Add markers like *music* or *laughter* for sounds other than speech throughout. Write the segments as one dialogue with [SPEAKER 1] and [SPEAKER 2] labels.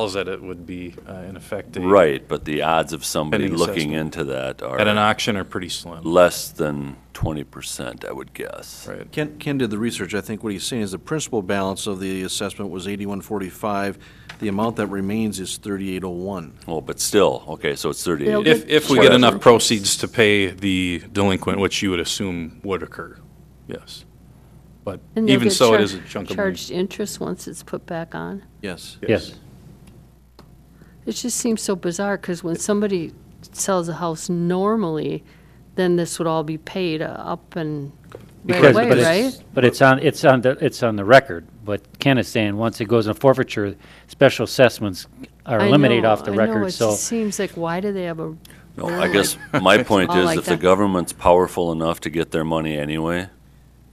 [SPEAKER 1] tells that it would be uh, in effect a-
[SPEAKER 2] Right, but the odds of somebody
[SPEAKER 1] Pending
[SPEAKER 2] looking
[SPEAKER 1] assessment.
[SPEAKER 2] into that
[SPEAKER 1] at an
[SPEAKER 2] are
[SPEAKER 1] auction are pretty slim,
[SPEAKER 2] less than twenty percent, I would guess.
[SPEAKER 1] right?
[SPEAKER 3] Ken, Ken did the research. I think what he's saying is the principal balance of the assessment was eighty-one forty-five. The amount that remains is thirty-eight oh one.
[SPEAKER 2] Well, but still, okay, so it's thirty-eight.
[SPEAKER 1] If, if we get enough proceeds to pay the delinquent, which you would assume would occur, yes. But
[SPEAKER 4] And they'll
[SPEAKER 1] even
[SPEAKER 4] get
[SPEAKER 1] so, it
[SPEAKER 4] char-
[SPEAKER 1] is a chunk of money.
[SPEAKER 4] Charged interest once it's put back on.
[SPEAKER 3] Yes.
[SPEAKER 5] Yes.
[SPEAKER 4] It just seems so bizarre, because when somebody sells a house normally, then this would all be paid uh, up and right
[SPEAKER 5] Because, but
[SPEAKER 4] away,
[SPEAKER 5] it's,
[SPEAKER 4] right?
[SPEAKER 5] but it's on, it's on, the it's on the record. But Ken is saying, once it goes in forfeiture, special assessments are
[SPEAKER 4] I
[SPEAKER 5] eliminated
[SPEAKER 4] know-
[SPEAKER 5] off the
[SPEAKER 4] I know,
[SPEAKER 5] record,
[SPEAKER 4] it
[SPEAKER 5] so.
[SPEAKER 4] just seems like, why do they have a,
[SPEAKER 2] No, I guess my point
[SPEAKER 4] all
[SPEAKER 2] is
[SPEAKER 4] like
[SPEAKER 2] if the
[SPEAKER 4] that.
[SPEAKER 2] government's powerful enough to get their money anyway,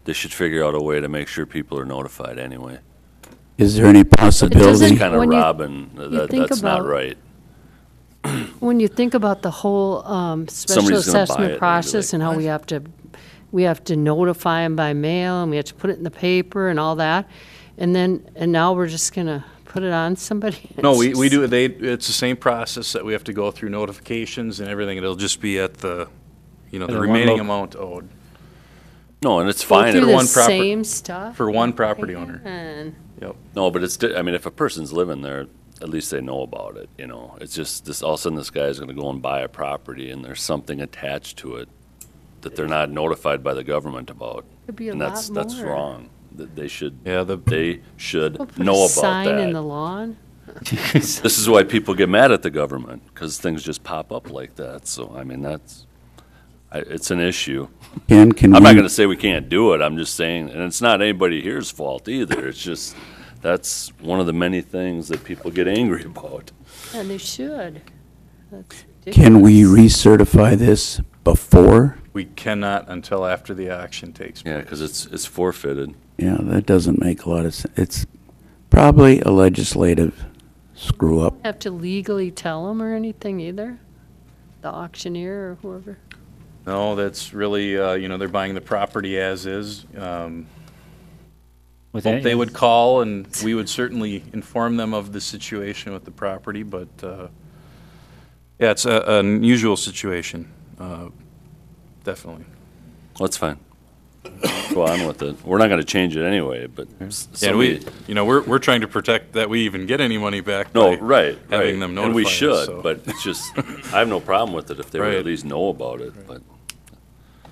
[SPEAKER 2] they should figure out a way to make sure people are notified anyway.
[SPEAKER 6] Is there any
[SPEAKER 4] doesn't-
[SPEAKER 2] It's
[SPEAKER 6] possibility?
[SPEAKER 2] kind of
[SPEAKER 4] when you-
[SPEAKER 2] robbing, that,
[SPEAKER 4] think
[SPEAKER 2] that's not
[SPEAKER 4] about-
[SPEAKER 2] right.
[SPEAKER 4] when you think about the whole um, special
[SPEAKER 2] Somebody's gonna buy it and be
[SPEAKER 4] assessment
[SPEAKER 2] like,
[SPEAKER 4] process and how we have to, we have to notify them by mail, and we have to put it in the paper and all that, and then, and now we're just gonna put it on somebody? *laughs*
[SPEAKER 1] No,
[SPEAKER 4] It's
[SPEAKER 1] we, we
[SPEAKER 4] just-
[SPEAKER 1] do, they, it's the same process that we have to go through notifications and everything. It'll just be at the, you know, the
[SPEAKER 5] And one
[SPEAKER 1] remaining
[SPEAKER 5] loc-
[SPEAKER 1] amount owed
[SPEAKER 2] No, and it's
[SPEAKER 4] Go
[SPEAKER 2] fine.
[SPEAKER 4] through
[SPEAKER 2] if-
[SPEAKER 4] the
[SPEAKER 1] one proper-
[SPEAKER 4] Same stuff?
[SPEAKER 1] for one property owner.
[SPEAKER 4] And
[SPEAKER 1] Yep.
[SPEAKER 2] No, but it's, di- I mean, if a person's living there, at least they know about it, you know? It's just, this, all of a sudden, this guy's gonna go and buy a property, and there's something attached to it that they're not notified by the government about.
[SPEAKER 4] Could be a
[SPEAKER 2] And that's,
[SPEAKER 4] lot
[SPEAKER 2] that's
[SPEAKER 4] more.
[SPEAKER 2] wrong. Th- They should,
[SPEAKER 1] Yeah, the,
[SPEAKER 2] they should
[SPEAKER 4] We'll put a
[SPEAKER 2] know about
[SPEAKER 4] sign in
[SPEAKER 2] that.
[SPEAKER 4] the lawn.
[SPEAKER 2] This is why people get mad at the government, because things just pop up like that, so, I mean, that's, I, it's an issue.
[SPEAKER 6] Ken, can
[SPEAKER 2] I'm not
[SPEAKER 6] we,
[SPEAKER 2] gonna say we can't do it, I'm just saying, and it's not anybody here's fault either, it's just, that's one of the many things that people get angry *laughs* about.
[SPEAKER 4] And they should. That's
[SPEAKER 6] can we
[SPEAKER 4] ridiculous.
[SPEAKER 6] recertify this before?
[SPEAKER 1] we cannot until after the auction takes.
[SPEAKER 2] Yeah, because it's, it's forfeited.
[SPEAKER 6] Yeah, that doesn't make a lot of sense. It's probably a legislative screw-up.
[SPEAKER 4] Have to legally tell them or anything either? The auctioneer or whoever?
[SPEAKER 1] No, that's really, uh, you know, they're buying the property as is. Um,
[SPEAKER 5] with
[SPEAKER 1] hope
[SPEAKER 5] any-
[SPEAKER 1] they would call and we would certainly inform them of the situation with the property, but, uh, yeah, it's a, an unusual situation, uh, definitely.
[SPEAKER 2] That's fine. Go on with it. We're not going to change it anyway, but s-
[SPEAKER 1] Yeah, And we,
[SPEAKER 2] somebody-
[SPEAKER 1] you know, we're, we're trying to protect that we even get any money back.
[SPEAKER 2] no,
[SPEAKER 1] by
[SPEAKER 2] right,
[SPEAKER 1] Having
[SPEAKER 2] right.
[SPEAKER 1] them
[SPEAKER 2] And we
[SPEAKER 1] notify us, so.
[SPEAKER 2] should, but it's just, I have no problem with it if they would
[SPEAKER 1] Right.
[SPEAKER 2] at least know about it, but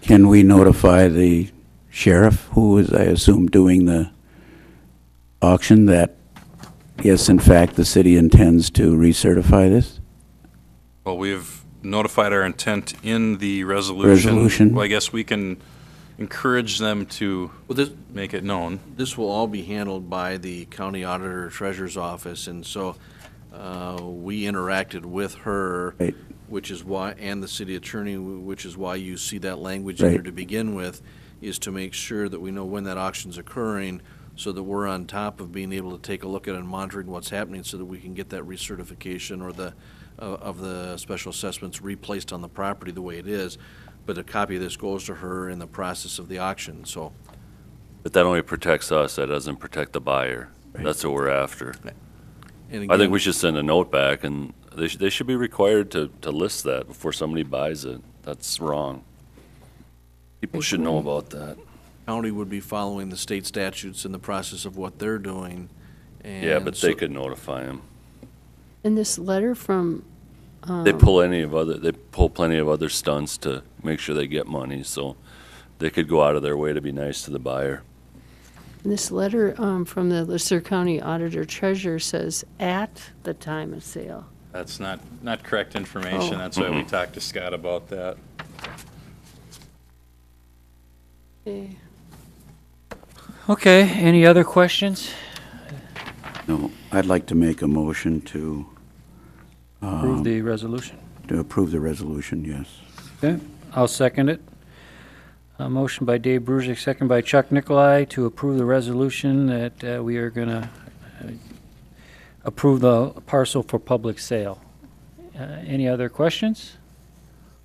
[SPEAKER 6] Can we notify the sheriff, who is, I assume, doing the auction, that, yes, in fact, the city intends to recertify this?
[SPEAKER 1] Well, we've notified our intent in the resolution.
[SPEAKER 6] Resolution.
[SPEAKER 1] Well, I guess we can encourage them to
[SPEAKER 3] Well, this,
[SPEAKER 1] make it known.
[SPEAKER 3] this will all be handled by the county auditor treasurer's office, and so, uh, we interacted with her,
[SPEAKER 6] Right.
[SPEAKER 3] which is why, and the city attorney, wh- which is why you see that language in there
[SPEAKER 6] Right.
[SPEAKER 3] to begin with, is to make sure that we know when that auction's occurring, so that we're on top of being able to take a look at and monitoring what's happening, so that we can get that recertification or the, uh, of the special assessments replaced on the property the way it is. But a copy of this goes to her in the process of the auction, so.
[SPEAKER 2] but that only protects us. That doesn't protect the buyer. That's what we're after.
[SPEAKER 3] and
[SPEAKER 2] I
[SPEAKER 3] again-
[SPEAKER 2] think we should send a note back, and they should, they should be required to, to list that before somebody buys it. That's wrong. People should know about that.
[SPEAKER 3] county would be following the state statutes in the process of what they're doing. and
[SPEAKER 2] Yeah, but
[SPEAKER 3] so-
[SPEAKER 2] they could notify them.
[SPEAKER 4] And this letter from,
[SPEAKER 2] They pull any of other, they pull plenty of other stunts to make sure they get money, so they could go out of their way to be nice to the buyer.
[SPEAKER 4] this letter um, from the Lister County Auditor Treasurer says, at the time of sale.
[SPEAKER 1] That's not, not correct information.
[SPEAKER 4] Oh.
[SPEAKER 1] That's why we talked to Scott about that.
[SPEAKER 4] Eh,
[SPEAKER 5] Okay, any other questions?
[SPEAKER 6] No, I'd like to make a motion to,
[SPEAKER 5] Approve the resolution.
[SPEAKER 6] to approve the resolution, yes.
[SPEAKER 5] Okay, I'll second it. A motion by Dave Brusick, second by Chuck Nicolai to approve the resolution that uh, we are going to approve the parcel for public sale. Uh, Any other questions?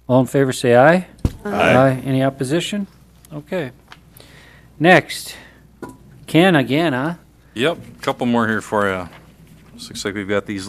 [SPEAKER 5] All in favor, say aye. Aye. Any opposition? Okay. Next, Ken again, huh?
[SPEAKER 1] Yep, couple more here for you. Looks like we've got these